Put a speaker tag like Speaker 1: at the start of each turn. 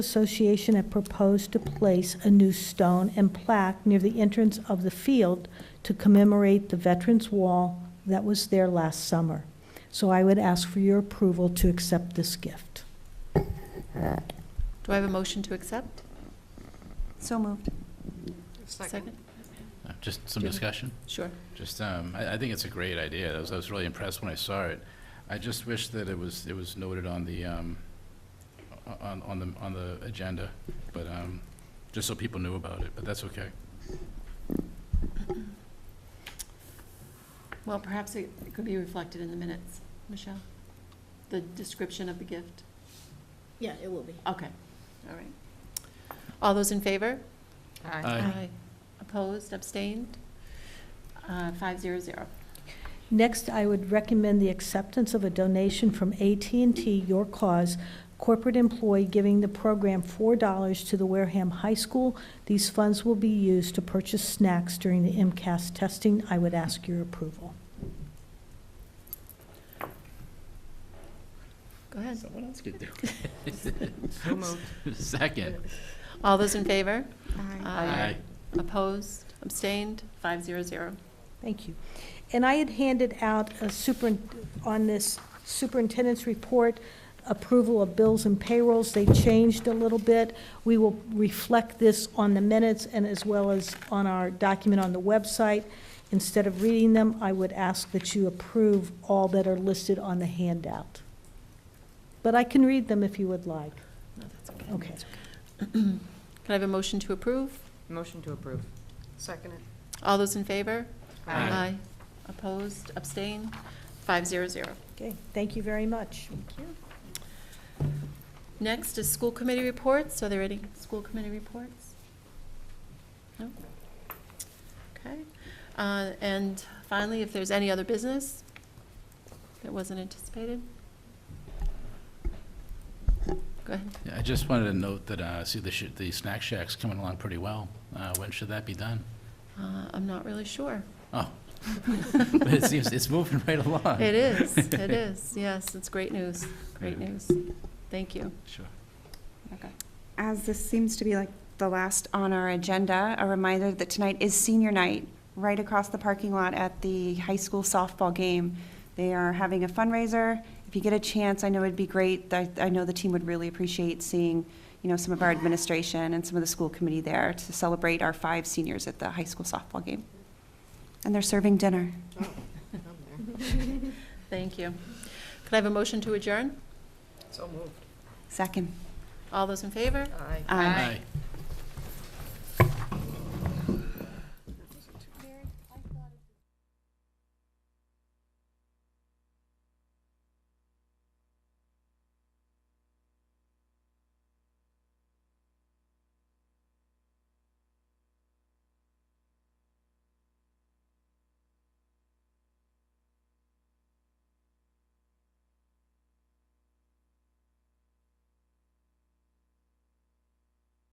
Speaker 1: Association had proposed to place a new stone and plaque near the entrance of the field to commemorate the Veterans Wall that was there last summer. So I would ask for your approval to accept this gift.
Speaker 2: Do I have a motion to accept? So moved. Second?
Speaker 3: Uh, Just some
Speaker 2: Yeah.
Speaker 3: discussion?
Speaker 2: Sure.
Speaker 3: Just, um, I, I think it's a great idea. I was, I was really impressed when I saw it. I just wish that it was, it was noted on the, um, o- on, on the, on the agenda, but, um, just so people knew about it, but that's okay.
Speaker 2: Well, perhaps it it could be reflected in the minutes, Michelle? The description of the gift?
Speaker 4: Yeah, it will be.
Speaker 2: Okay, all right. All those in favor? Uh,
Speaker 3: Aye.
Speaker 2: Opposed, abstained? Uh, Five zero zero.
Speaker 1: Next, I would recommend the acceptance of a donation from at and t Your Cause corporate employee giving the program $4 to the Wareham High School. These funds will be used to purchase snacks during the MCAS testing. I would ask your approval.
Speaker 2: Go ahead.
Speaker 3: Someone else could do it. Second.
Speaker 2: All those in favor?
Speaker 3: Aye.
Speaker 2: Opposed, abstained? Five zero zero.
Speaker 1: Thank you. And I had handed out a super, on this superintendent's report, approval of bills and payrolls. They changed a little bit. We will reflect this on the minutes and as well as on our document on the website. Instead of reading them, I would ask that you approve all that are listed on the handout. But I can read them if you would like.
Speaker 2: No, that's okay.
Speaker 1: Okay.
Speaker 2: Can I have a motion to approve?
Speaker 4: Motion to approve. Second.
Speaker 2: All those in favor?
Speaker 3: Aye.
Speaker 2: Opposed, abstained? Five zero zero.
Speaker 1: Okay, thank you very much.
Speaker 2: Next is school committee reports. Are there any school committee reports? No? Okay. Uh, And finally, if there's any other business that wasn't anticipated? Go ahead.
Speaker 3: Yeah, I just wanted to note that, uh, see, the, sh- the snack shack's coming along pretty well. Uh, when should that be done?
Speaker 2: Uh, I'm not really sure.
Speaker 3: But it seems, it's moving right along.
Speaker 2: It is, it is, yes, it's great news, great
Speaker 3: Yeah.
Speaker 2: news. Thank you.
Speaker 3: Sure.
Speaker 5: As this seems to be like the last on our agenda, a reminder that tonight is senior night, right across the parking lot at the high school softball game. They are having a fundraiser. If you get a chance, I know it'd be great. I, I know the team would really appreciate seeing, you know, some of our administration and some of the school committee there to celebrate our five seniors at the high school softball game. And they're serving dinner.
Speaker 2: Thank you. Could I have a motion to adjourn?
Speaker 4: So moved.
Speaker 5: Second.
Speaker 2: All those in favor?
Speaker 4: Aye.
Speaker 3: Aye.